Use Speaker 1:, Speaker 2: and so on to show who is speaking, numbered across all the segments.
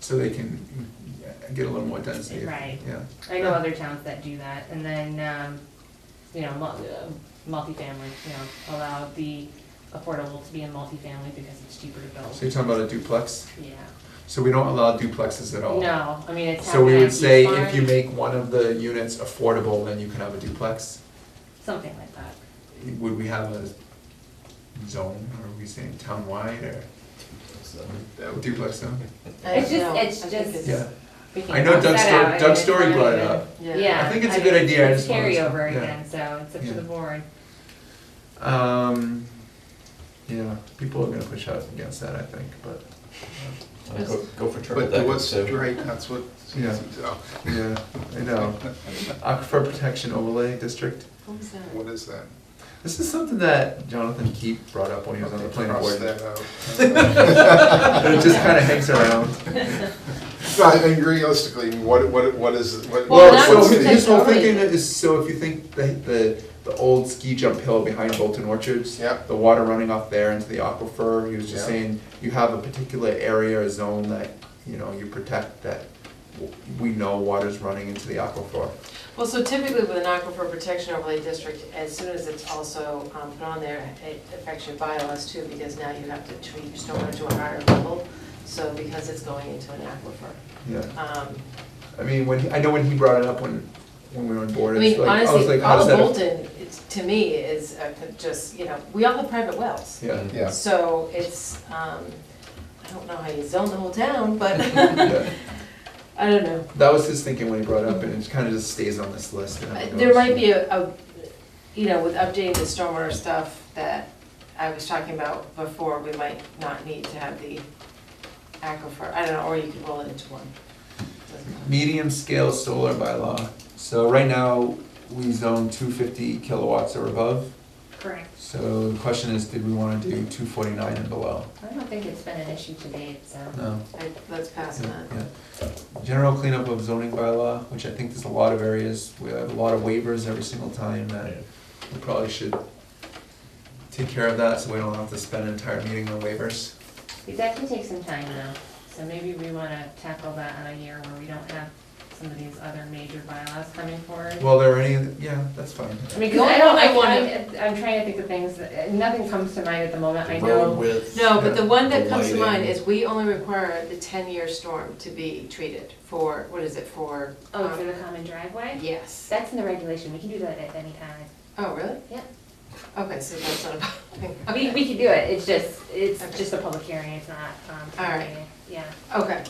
Speaker 1: so they can get a little more density.
Speaker 2: Right.
Speaker 1: Yeah.
Speaker 2: I know other towns that do that, and then, um, you know, mul- uh, multifamily, you know, allow the affordable to be in multifamily because it's cheaper to
Speaker 1: So
Speaker 2: build.
Speaker 1: you're talking about a duplex?
Speaker 2: Yeah,
Speaker 1: So we don't allow duplexes at all?
Speaker 2: no, I mean, it's.
Speaker 1: So we
Speaker 2: happened
Speaker 1: would
Speaker 2: at
Speaker 1: say
Speaker 2: East
Speaker 1: if you
Speaker 2: Orange,
Speaker 1: make one of the units affordable, then you can have a duplex?
Speaker 2: Something like that.
Speaker 1: Would we have a zone, or are we saying townwide, or duplex zone?
Speaker 2: It's just- it's just-
Speaker 1: Yeah,
Speaker 2: We can
Speaker 1: I know
Speaker 2: cross
Speaker 1: Doug
Speaker 2: that out. I
Speaker 1: Story,
Speaker 2: mean,
Speaker 1: Doug
Speaker 2: it's
Speaker 1: Story
Speaker 2: not
Speaker 1: brought it
Speaker 2: even-
Speaker 1: up.
Speaker 2: Yeah.
Speaker 1: I think it's a
Speaker 2: mean,
Speaker 1: good idea, I
Speaker 2: It's
Speaker 1: just wanted to-
Speaker 2: carryover
Speaker 1: yeah.
Speaker 2: again, so it's up
Speaker 1: Yeah.
Speaker 2: to the board.
Speaker 1: Um, yeah, people are gonna push out against that, I think, but,
Speaker 3: Go go for
Speaker 4: But
Speaker 3: turtleneck,
Speaker 4: what's,
Speaker 3: so,
Speaker 4: right, that's what,
Speaker 1: Yeah.
Speaker 4: so,
Speaker 1: yeah, I know. Aquifer Protection Overlay District,
Speaker 4: what is that?
Speaker 1: this is something that Jonathan Keep brought up when he was on the planning board.
Speaker 4: Cross that out.
Speaker 1: But it just kinda hangs around.
Speaker 4: No, I think realistically, what, what, what is, what?
Speaker 1: Well,
Speaker 4: what's
Speaker 1: so
Speaker 4: the-
Speaker 1: his whole
Speaker 5: already-
Speaker 1: thinking is, so if you think the, the, the old ski jump hill behind Bolton Orchards,
Speaker 4: Yep.
Speaker 1: the water running off there into the aquifer, he was just
Speaker 4: Yeah.
Speaker 1: saying, you have a particular area or zone that, you know, you protect that w- we know water's running into the aquifer.
Speaker 5: Well, so typically with an aquifer protection overlay district, as soon as it's also um, put on there, it affects your bylaws too, because now you have to treat your stormwater to a higher level, so because it's going into an aquifer.
Speaker 1: Yeah,
Speaker 5: Um,
Speaker 1: I mean, when, he- I know when he brought it up when, when we were on board,
Speaker 5: I
Speaker 1: it's
Speaker 5: mean,
Speaker 1: like, I was
Speaker 5: honestly,
Speaker 1: like, how
Speaker 5: all
Speaker 1: does
Speaker 5: of
Speaker 1: that?
Speaker 5: Bolton, it's- to me, is uh, just, you know, we all have private wells.
Speaker 1: Yeah,
Speaker 4: Yeah,
Speaker 5: So it's, um, I don't know how you zone the whole town, but,
Speaker 1: yeah,
Speaker 5: I don't know.
Speaker 1: that was his thinking when he brought it up, and it kinda just stays on this list. and it
Speaker 5: Uh, There
Speaker 1: goes.
Speaker 5: might be a, a, you know, with updating the stormwater stuff that I was talking about before, we might not need to have the aquifer, I don't know, or you could roll it into one. Doesn't matter.
Speaker 1: medium scale solar by law. So right now, we zone two fifty kilowatts or above.
Speaker 2: Correct.
Speaker 1: So the question is, did we wanna do two forty-nine and below?
Speaker 2: I don't think it's been an issue to date, so.
Speaker 1: No.
Speaker 5: I- Let's pass on
Speaker 1: Yeah,
Speaker 5: that.
Speaker 1: yeah. General cleanup of zoning bylaw, which I think there's a lot of areas, we have a lot of waivers every single time that we probably should take care of that, so we don't have to spend an entire meeting on waivers.
Speaker 2: It definitely takes some time though, so maybe we wanna tackle that in a year where we don't have some of these other major bylaws coming forward.
Speaker 1: Well, there are any, yeah, that's fine.
Speaker 2: I mean,
Speaker 5: The
Speaker 2: 'cause
Speaker 5: only
Speaker 2: I don't,
Speaker 5: one I
Speaker 2: I,
Speaker 5: wanna-
Speaker 2: I, I'm trying to think of things, that- nothing comes to mind at the moment, I
Speaker 3: the
Speaker 2: know.
Speaker 3: road width.
Speaker 5: No, but the one that
Speaker 3: The
Speaker 5: comes to mind
Speaker 3: lighting.
Speaker 5: is we only require the ten-year storm to be treated for, what is it, for?
Speaker 2: Oh,
Speaker 5: um,
Speaker 2: for the common driveway?
Speaker 5: Yes.
Speaker 2: That's in the regulation, we can do that at any time.
Speaker 5: Oh, really?
Speaker 2: Yeah.
Speaker 5: Okay, so that's not a problem.
Speaker 2: We, we can do it, it's just, it's
Speaker 5: Okay.
Speaker 2: just a public hearing, it's not, um, town
Speaker 5: All right.
Speaker 2: meeting. yeah.
Speaker 5: Okay,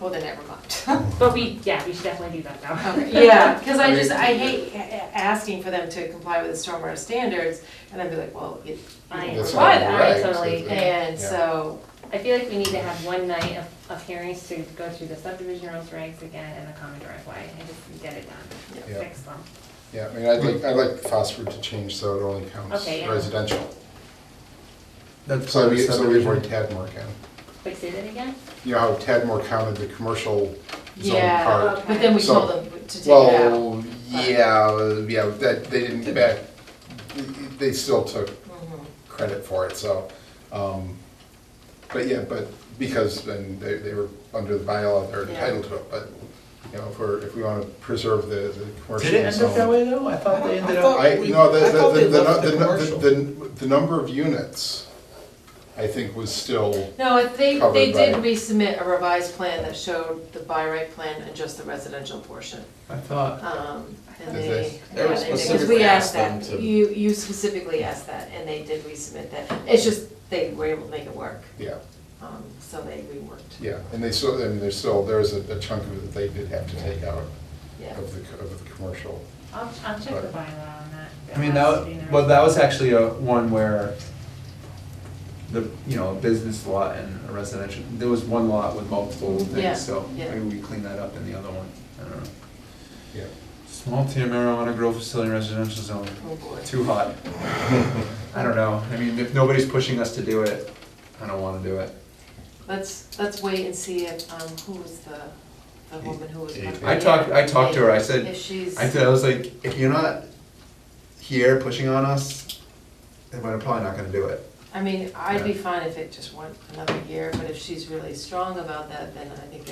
Speaker 5: well then never mind.
Speaker 2: But we, yeah, we should definitely do that though.
Speaker 5: Okay, Yeah, because I just, I hate a- a- asking for them to comply with the stormwater standards, and I'd be like, well, you
Speaker 2: I
Speaker 5: you
Speaker 2: am.
Speaker 5: didn't
Speaker 4: That's
Speaker 5: comply
Speaker 4: not
Speaker 5: that.
Speaker 4: right.
Speaker 2: Totally,
Speaker 4: Yeah.
Speaker 5: And
Speaker 4: Yeah.
Speaker 5: so,
Speaker 2: I feel like we need to have one night of, of hearings to go through the subdivision rules regs again and the common driveway and just get it done,
Speaker 4: Yeah.
Speaker 2: fix them.
Speaker 4: yeah, I mean, I'd like, I'd like phosphor to change so it only counts
Speaker 2: Okay, yeah.
Speaker 4: residential.
Speaker 1: That's
Speaker 4: So
Speaker 1: part of
Speaker 4: we, so we avoid
Speaker 1: subdivision.
Speaker 4: Tadmore County.
Speaker 2: Wait, say that again?
Speaker 4: You know how Tadmore counted the commercial zone
Speaker 5: Yeah.
Speaker 4: part?
Speaker 2: Okay.
Speaker 5: but then we
Speaker 4: So-
Speaker 5: told them to take it out.
Speaker 4: Well, yeah, yeah, that, they didn't back, they still took
Speaker 5: Mhm.
Speaker 4: credit for it, so, um, but yeah, but because then they, they were under the bylaw, they're
Speaker 5: Yeah.
Speaker 4: entitled to it, but, you know, if we're, if we wanna preserve the, the commercial
Speaker 1: Did
Speaker 4: zone.
Speaker 1: it end up that way though? I thought they ended up.
Speaker 4: I,
Speaker 3: We-
Speaker 4: no,
Speaker 3: I thought
Speaker 4: the,
Speaker 3: they
Speaker 4: the, the,
Speaker 3: left
Speaker 4: the,
Speaker 3: the commercial.
Speaker 4: the, the, the number of units, I think was still,
Speaker 5: No, they,
Speaker 4: Covered
Speaker 5: they did
Speaker 4: by-
Speaker 5: resubmit a revised plan that showed the by right plan and just the residential portion.
Speaker 1: I thought,
Speaker 5: Um, And
Speaker 4: Is
Speaker 5: they,
Speaker 4: this-
Speaker 3: They were
Speaker 5: because
Speaker 3: specifically
Speaker 5: we
Speaker 3: asked
Speaker 5: asked that,
Speaker 3: them to-
Speaker 5: you, you specifically asked that, and they did resubmit that. It's just, they were able to make it work,
Speaker 4: yeah,
Speaker 5: um, so they reworked,
Speaker 4: yeah, and they still, and there's still, there's a a chunk of it that they did have to take out
Speaker 5: yeah.
Speaker 4: of the, co- of the commercial.
Speaker 2: I'll, I'll check the
Speaker 4: Right.
Speaker 2: bylaw on that.
Speaker 1: I mean,
Speaker 2: That's in
Speaker 1: that,
Speaker 2: the
Speaker 1: well, that was actually a one where the, you know, a business lot and a residential, there was one lot with multiple
Speaker 5: Yeah,
Speaker 1: things, so
Speaker 5: yeah.
Speaker 1: maybe we clean that up in the other one, I don't know.
Speaker 4: Yeah.
Speaker 1: Small tier marijuana grow facility residential zone,
Speaker 5: Oh, boy.
Speaker 1: too hot. I don't know, I mean, if nobody's pushing us to do it, I don't wanna do it.
Speaker 5: Let's, let's wait and see if, um, who was the, the woman who was. running
Speaker 1: I
Speaker 5: it.
Speaker 1: talked, I talked to her, I
Speaker 5: If
Speaker 1: said,
Speaker 5: she's,
Speaker 1: I said, I was like, if you're not here pushing on us, then we're probably not gonna do it.
Speaker 5: I mean, I'd be fine if it just went another year, but if she's really strong about that, then I think